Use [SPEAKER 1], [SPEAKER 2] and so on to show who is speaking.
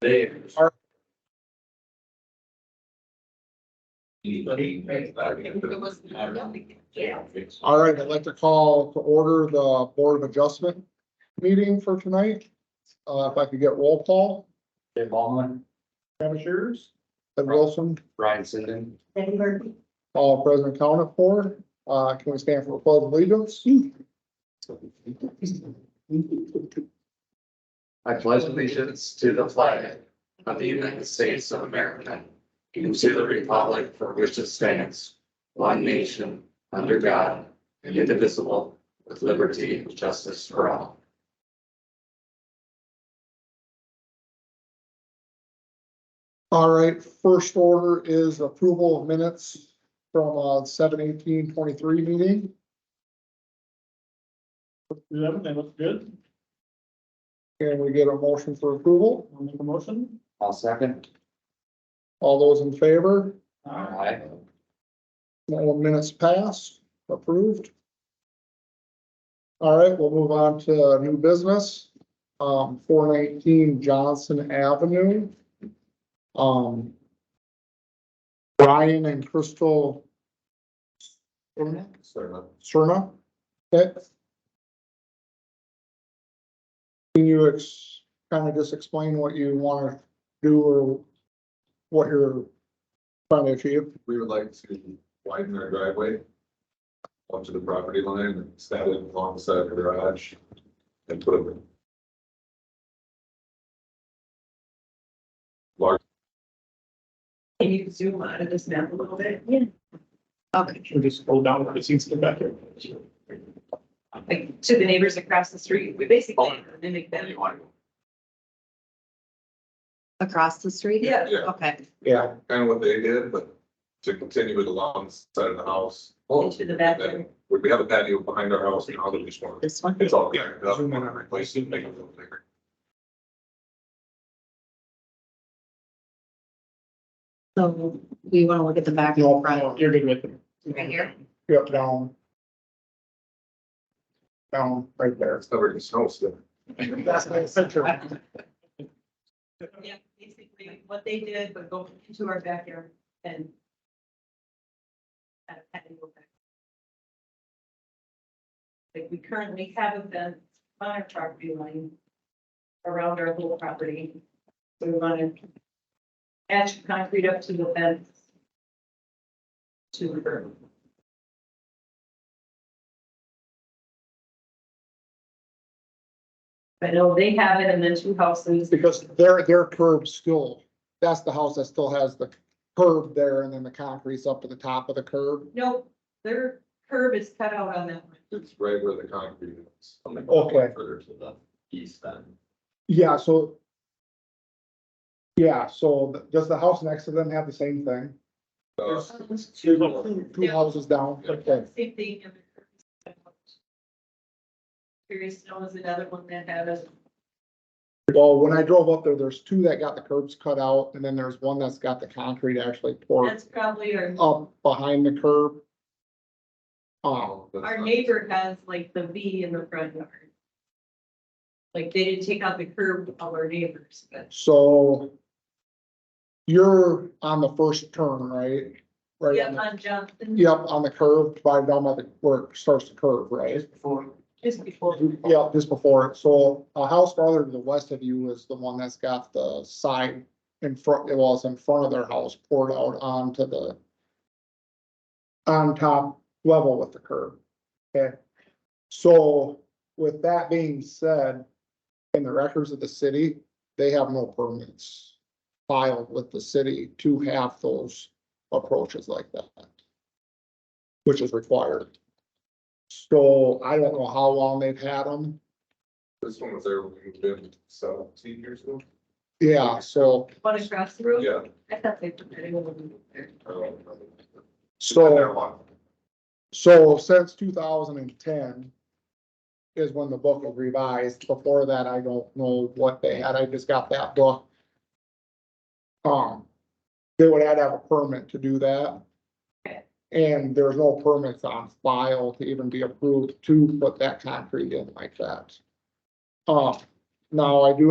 [SPEAKER 1] They are. Anybody?
[SPEAKER 2] All right, I'd like to call to order the Board of Adjustment meeting for tonight. Uh, if I could get roll call,
[SPEAKER 1] Dave Ballman,
[SPEAKER 2] Commissioners, Ted Wilson,
[SPEAKER 1] Brian Sinden.
[SPEAKER 3] Betty Murphy.
[SPEAKER 2] all present accounted for. Uh, can we stand for the pledge of allegiance?
[SPEAKER 1] I pledge allegiance to the flag of the United States of America and to the republic for which it stands, one nation, under God, indivisible, with liberty and justice for all.
[SPEAKER 2] All right, first order is approval of minutes from, uh, seven eighteen twenty-three meeting.
[SPEAKER 4] Yeah, they look good.
[SPEAKER 2] Can we get a motion for approval?
[SPEAKER 4] I'll make a motion.
[SPEAKER 1] I'll second.
[SPEAKER 2] All those in favor?
[SPEAKER 1] Aye.
[SPEAKER 2] No minutes passed, approved. All right, we'll move on to new business, um, four nineteen Johnson Avenue. Um. Brian and Crystal
[SPEAKER 1] So,
[SPEAKER 2] Serna, okay? Can you ex, kind of just explain what you want to do or what you're trying to achieve?
[SPEAKER 5] we would like to widen our driveway up to the property line and stand it alongside the garage and put a
[SPEAKER 3] Can you zoom out of this map a little bit?
[SPEAKER 4] Should we just scroll down where it seems to be back here?
[SPEAKER 3] Like to the neighbors across the street, we
[SPEAKER 4] Oh.
[SPEAKER 3] basically mimic them.
[SPEAKER 6] Across the street?
[SPEAKER 3] Yeah.
[SPEAKER 5] Yeah.
[SPEAKER 6] Okay,
[SPEAKER 2] Yeah.
[SPEAKER 5] kind of what they did, but to continue it alongside of the house.
[SPEAKER 3] Into the bathroom.
[SPEAKER 5] We, we have a patio behind our house now that we just want,
[SPEAKER 6] this one.
[SPEAKER 5] it's all cleared up, want to replace it, make it a little bigger.
[SPEAKER 6] So we want to look at the back
[SPEAKER 2] No,
[SPEAKER 6] and front.
[SPEAKER 4] You're good with it.
[SPEAKER 6] Right here?
[SPEAKER 2] Yep, down. Down, right there.
[SPEAKER 5] It's covered in snow still.
[SPEAKER 2] That's my picture.
[SPEAKER 3] Yeah, basically what they did, but go into our backyard and. kind of had to go back. Like we currently have a fence on our property line. Around our whole property. So We want to. Patch concrete up to the fence. To the curb. I know they have it and then two houses.
[SPEAKER 2] Because their, their curb still, that's the house that still has the curb there and then the concrete's up to the top of the curb.
[SPEAKER 3] No, their curb is cut out on that one.
[SPEAKER 5] It's right where the concrete is.
[SPEAKER 2] Okay.
[SPEAKER 5] Further to the-
[SPEAKER 1] east then.
[SPEAKER 2] Yeah, so. Yeah, so th- does the house next to them have the same thing?
[SPEAKER 5] Uh,
[SPEAKER 2] Two two houses down, okay.
[SPEAKER 3] Same thing. and the curb is cut out. Curious Snow is another one that had us,
[SPEAKER 2] Well, when I drove up there, there's two that got the curbs cut out and then there's one that's got the concrete actually poured
[SPEAKER 3] that's probably our,
[SPEAKER 2] up behind the curb. Um,
[SPEAKER 5] oh, that's
[SPEAKER 3] our
[SPEAKER 5] not-
[SPEAKER 3] neighbor has like the V in the front yard. Like they didn't take out the curb of our neighbors, but
[SPEAKER 2] So you're on the first turn, right? Right.
[SPEAKER 3] yeah,
[SPEAKER 2] on the-
[SPEAKER 3] on Johnson.
[SPEAKER 2] Yep, on the curve, by down by the, where it starts to curve, right?
[SPEAKER 3] Just before.
[SPEAKER 2] Yep, just before. it. So a house farther to the west of you is the one that's got the side in front, well, it's in front of their house poured out onto the on top level with the curb. Okay, so with that being said, in the records of the city, they have no permits filed with the city to have those approaches like that, which is required. So I don't know how long they've had them.
[SPEAKER 5] This one was there when we moved in seventeen years ago.
[SPEAKER 2] Yeah, so,
[SPEAKER 3] One across the road,
[SPEAKER 5] Yeah.
[SPEAKER 3] I thought they put that over there.
[SPEAKER 5] I don't know. Been there
[SPEAKER 2] so,
[SPEAKER 5] a while.
[SPEAKER 2] so since two thousand and ten is when the book was revised. Before that, I don't know what they had. I just got that book. Um, they would have to have a permit to do that. And there's no permits on file to even be approved to put that concrete in like that. Uh, Um, now I do